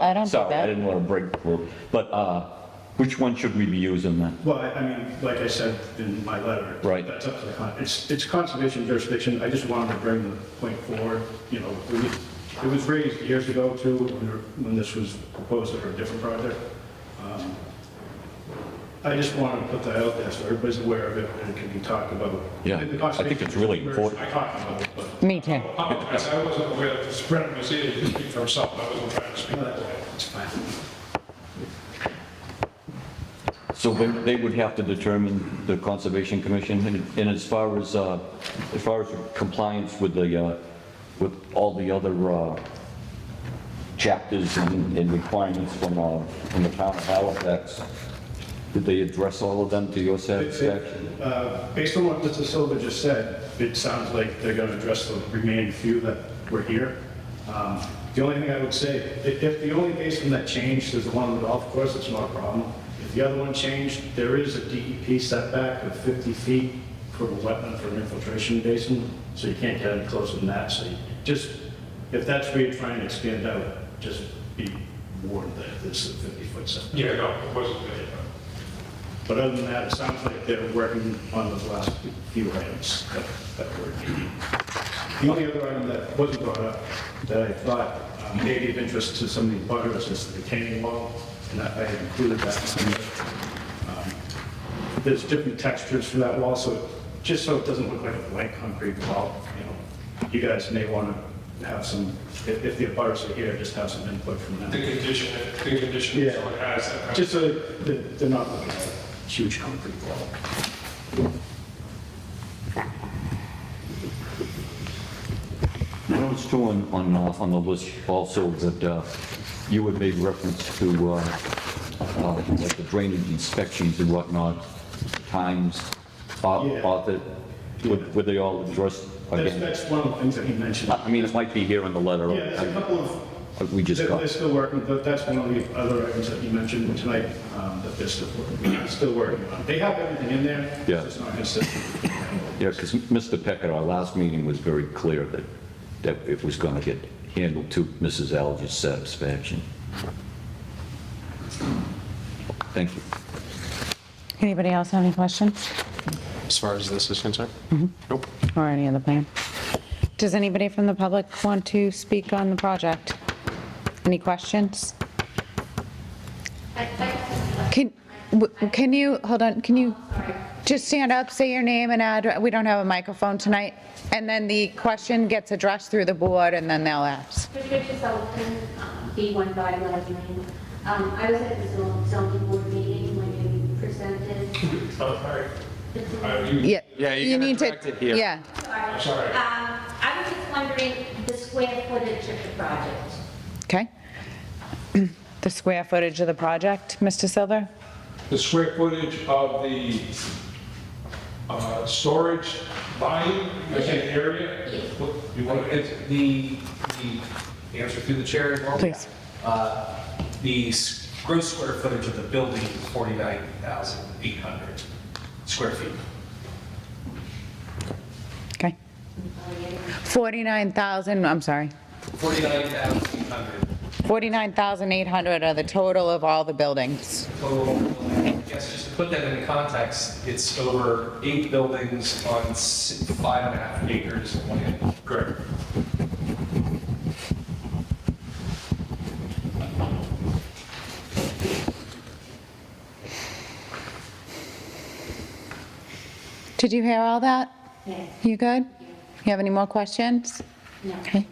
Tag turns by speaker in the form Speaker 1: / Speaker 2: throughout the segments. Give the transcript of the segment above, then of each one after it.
Speaker 1: I don't do
Speaker 2: Sorry, I
Speaker 1: that.
Speaker 2: didn't want to break the rule, but uh, which one should we be using then?
Speaker 3: Well, I I mean, like I said in my letter.
Speaker 2: Right.
Speaker 3: That's up to the, con- it's, it's conservation jurisdiction, I just wanted to bring the point forward, you know, we, it was raised years ago too, when, there- when this was proposed for a different project. Um, I just wanted to put that out there so everybody's aware of it and it can be talked about.
Speaker 2: Yeah,
Speaker 3: And the
Speaker 2: I think
Speaker 3: conservation
Speaker 2: it's really
Speaker 3: members,
Speaker 2: important.
Speaker 3: I talked about it, but
Speaker 1: Me too.
Speaker 4: apologize, I wasn't aware that this Brennan was here, he speak for himself, I wasn't trying to speak that way.
Speaker 3: it's fine.
Speaker 2: So they they would have to determine the Conservation Commission, and- and as far as, uh, as far as compliance with the, uh, with all the other uh, chapters and and requirements from, uh, from the town of Halifax, did they address all of them to your
Speaker 3: It's- it-
Speaker 2: satisfaction?
Speaker 3: uh, Based on what Mr. Silva just said, it sounds like they're going to address the remaining few that were here. Um, The only thing I would say, i- if the only basin that changed is the one on the golf course, it's not a problem. If the other one changed, there is a DEP setback of 50 feet for the wetland for an infiltration basin, so you can't get any closer than that. So you just, if that's where you're trying to expand out, just be warned that this is a 50-foot setback.
Speaker 4: Yeah, no, it wasn't there.
Speaker 3: But other than that, it sounds like they're working on those last few items that that were needed. The only other item that wasn't brought up that I thought um, may be of interest to some of the butters is the retaining wall, and I I had included that. in there. Um, There's different textures for that wall, so just so it doesn't look like a blank concrete wall, you know, you guys may want to have some, if if the butters are here, just have some input from them.
Speaker 4: The condition, the condition
Speaker 3: Yeah.
Speaker 4: is what has that. kind of-
Speaker 3: Just so that they're not looking at a huge concrete wall.
Speaker 2: I noticed too on, on, uh, on the list also that uh, you had made reference to, uh, uh, like the drainage inspections and whatnot, times, au-
Speaker 3: Yeah.
Speaker 2: audit, would, would they all addressed
Speaker 3: That's,
Speaker 2: again?
Speaker 3: that's one of the things that he mentioned.
Speaker 2: I mean, it might be here in the letter.
Speaker 3: Yeah, there's a couple of
Speaker 2: Like We just
Speaker 3: They're
Speaker 2: got,
Speaker 3: they're still working, but that's one of the other items that you mentioned tonight, um, that they're still, working- still working on. They have everything in there. it's
Speaker 2: Yeah.
Speaker 3: just not consistent.
Speaker 2: yeah, because Mr. Peck at our last meeting was very clear that, that it was going to get handled to Mrs. Alger's satisfaction. Thank you.
Speaker 1: Anybody else have any questions
Speaker 5: as far as this is concerned? Nope.
Speaker 1: or any other plan? Does anybody from the public want to speak on the project? Any questions? Can, w- can you, hold on, can you just stand up, say your name and address? We don't have a microphone tonight. And then the question gets addressed through the board and then they'll ask.
Speaker 6: Patricia Sullivan, um, B1 by 11 Lane. Um, I was at the zo- zoning board meeting when you presented.
Speaker 4: Oh, all right. Uh, you-
Speaker 1: Yeah.
Speaker 5: Yeah, you
Speaker 1: you
Speaker 5: can
Speaker 1: need to-
Speaker 5: direct it here.
Speaker 1: Yeah.
Speaker 6: I'm
Speaker 4: sorry.
Speaker 6: Um, I was just wondering the square footage of the project.
Speaker 1: Okay. The square footage of the project, Mr. Silver?
Speaker 4: The square footage of the uh, storage volume, I think, area?
Speaker 7: You want, it's the, the, answer through the chair as well?
Speaker 1: Please.
Speaker 7: Uh, The s- gross square footage of the building is 49,800 square feet.
Speaker 1: Okay. 49,000, I'm sorry,
Speaker 7: 49,800
Speaker 1: 49,800 are the total of all the buildings.
Speaker 7: total. Yes, just to put that into context, it's over eight buildings on s- five and a half acres of land. Correct.
Speaker 1: Did you hear all that?
Speaker 6: Yeah.
Speaker 1: You good? You have any more questions?
Speaker 6: No.
Speaker 1: Okay.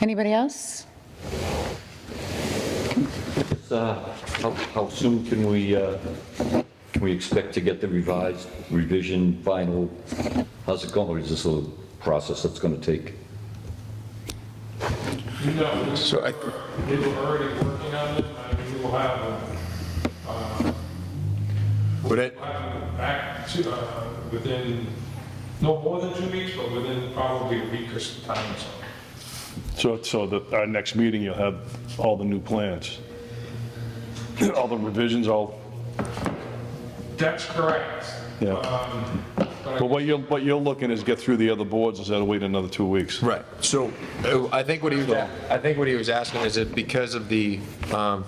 Speaker 1: Anybody else?
Speaker 2: Uh, How how soon can we, uh, can we expect to get the revised revision final? How's it going? Or Is this a process that's going to take?
Speaker 4: No, we
Speaker 5: So I-
Speaker 4: were- we were already working on it, and we will have, uh,
Speaker 5: Would it,
Speaker 4: we'll have it back to, uh, within, no more than two weeks, but within probably a week or some time or so.
Speaker 8: So, so that our next meeting, you'll have all the new plans, all the revisions, all,
Speaker 4: That's correct.
Speaker 8: Yeah.
Speaker 4: Um, But
Speaker 8: But what you're, what you're looking is get through the other boards instead of waiting another two weeks.
Speaker 5: Right. So uh, I think what he was, I think what he was asking is it because of the um,